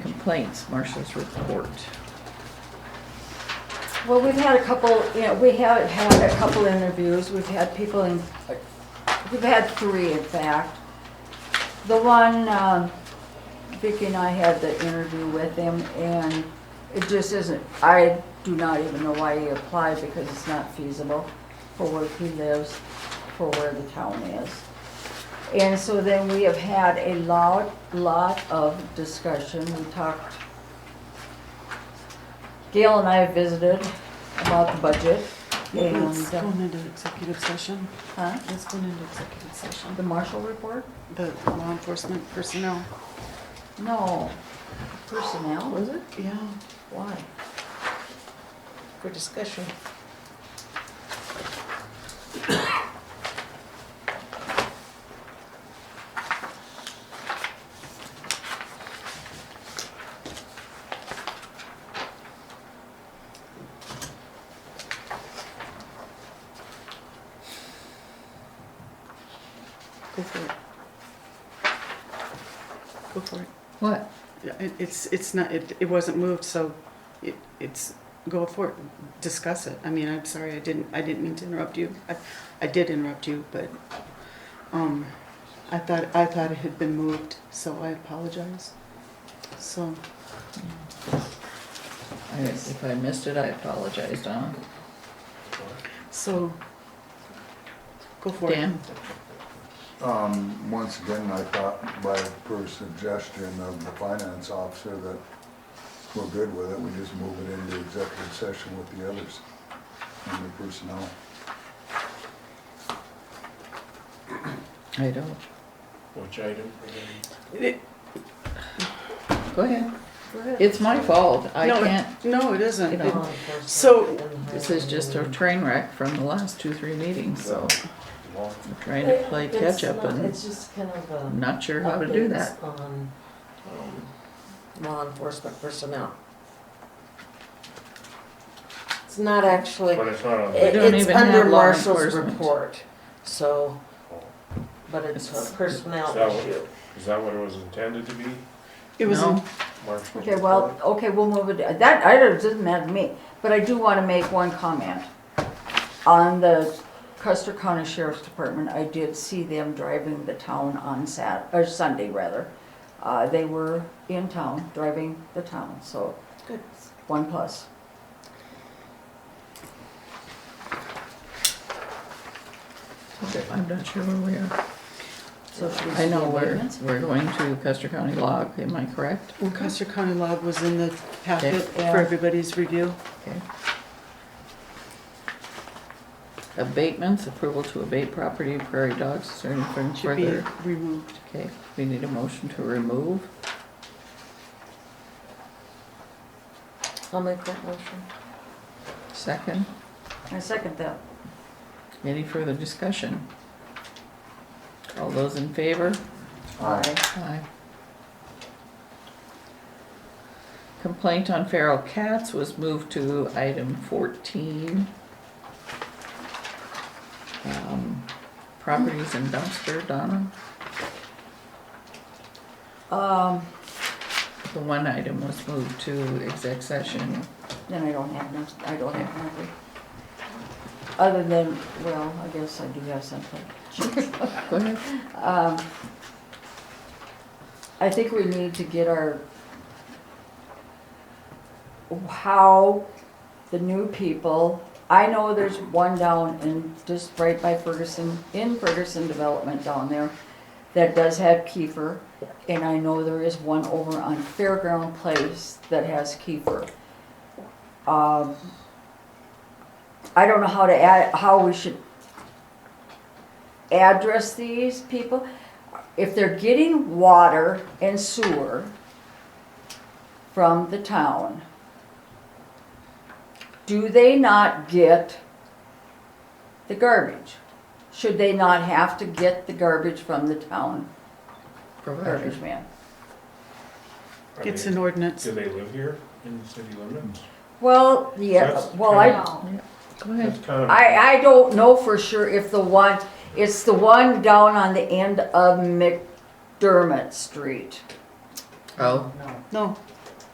complaints, Marcia's report. Well, we've had a couple, you know, we have had a couple interviews, we've had people in, we've had three in fact. The one, um, Vicki and I had the interview with him and it just isn't, I do not even know why he applied because it's not feasible for where he lives, for where the town is. And so then we have had a lot, lot of discussion, we talked Gail and I have visited about the budget Let's and, go uh, into executive session. huh, Let's go into executive session. the Marshall report? The law enforcement personnel. No, personnel, Was it? Yeah. why? for discussion. Go for it. Go for it. What? Yeah, it- It's, it's not, it, it wasn't moved, so it, it's, go for it, discuss it. I mean, I'm sorry, I didn't, I didn't mean to interrupt you. I, I did interrupt you, but, um, I thought, I thought it had been moved, so I apologize. So, I- If I missed it, I apologize, Donna. so, go for it. Dan? Um, once again, I thought by per suggestion of the finance officer that we're good with it, we just move it into executive session with the others and the personnel. I don't. Which item? It- Go ahead. Go ahead. It's my fault. I no, it- can't, No, it isn't. you It- know, So, this is just a train wreck from the last two, three meetings, so Law I'm trying to play It's catch up not- and It's just kind of a. I'm not sure how to do that. updates On um, law enforcement personnel. It's not actually, But it's not on. it- don't it's even have under law Marshall's enforcement. report, so, but it's It's- a personnel Is that what- issue. Is that what it was intended to be? it was, No. March? Okay, well, okay, we'll move it, that, I don't, it doesn't matter to me, but I do wanna make one comment. On the Custer County Sheriff's Department, I did see them driving the town on Sat, or Sunday rather. Uh, they were in town, driving the town, so. Good. One plus. I'm not sure where we are. So should we I know see we're, amendments? we're going to Custer County log, am I correct? when Custer County Log was in the packet for Yeah. everybody's review. Okay. Abatements, approval to abate property, Prairie Dogs, is there anything Should be further? removed. Okay, we need a motion to remove. I'll make that motion. Second, I second that. any further discussion? All those in favor? Aye. Aye. Complaint on feral cats was moved to item fourteen. Um, Properties and dumpster, Donna, Um, the one item was moved to exec session. then I don't have, no- I don't have nothing. Other than, well, I guess I do have something. Go ahead. Um, I think we need to get our, how the new people, I know there's one down in, just right by Ferguson, in Ferguson Development down there, that does have kefir, and I know there is one over on Fairground Place that has kefir. Um, I don't know how to add, how we should address these people. If they're getting water and sewer from the town, do they not get the garbage? Should they not have to get the garbage from the town Provider. garbage man? Are It's they- an ordinance. Do they live here in the city limits? Well, yeah, That's well, kind I, No. Go ahead. That's kind of. I, I don't know for sure if the one, it's the one down on the end of McDermott Street. Oh, No,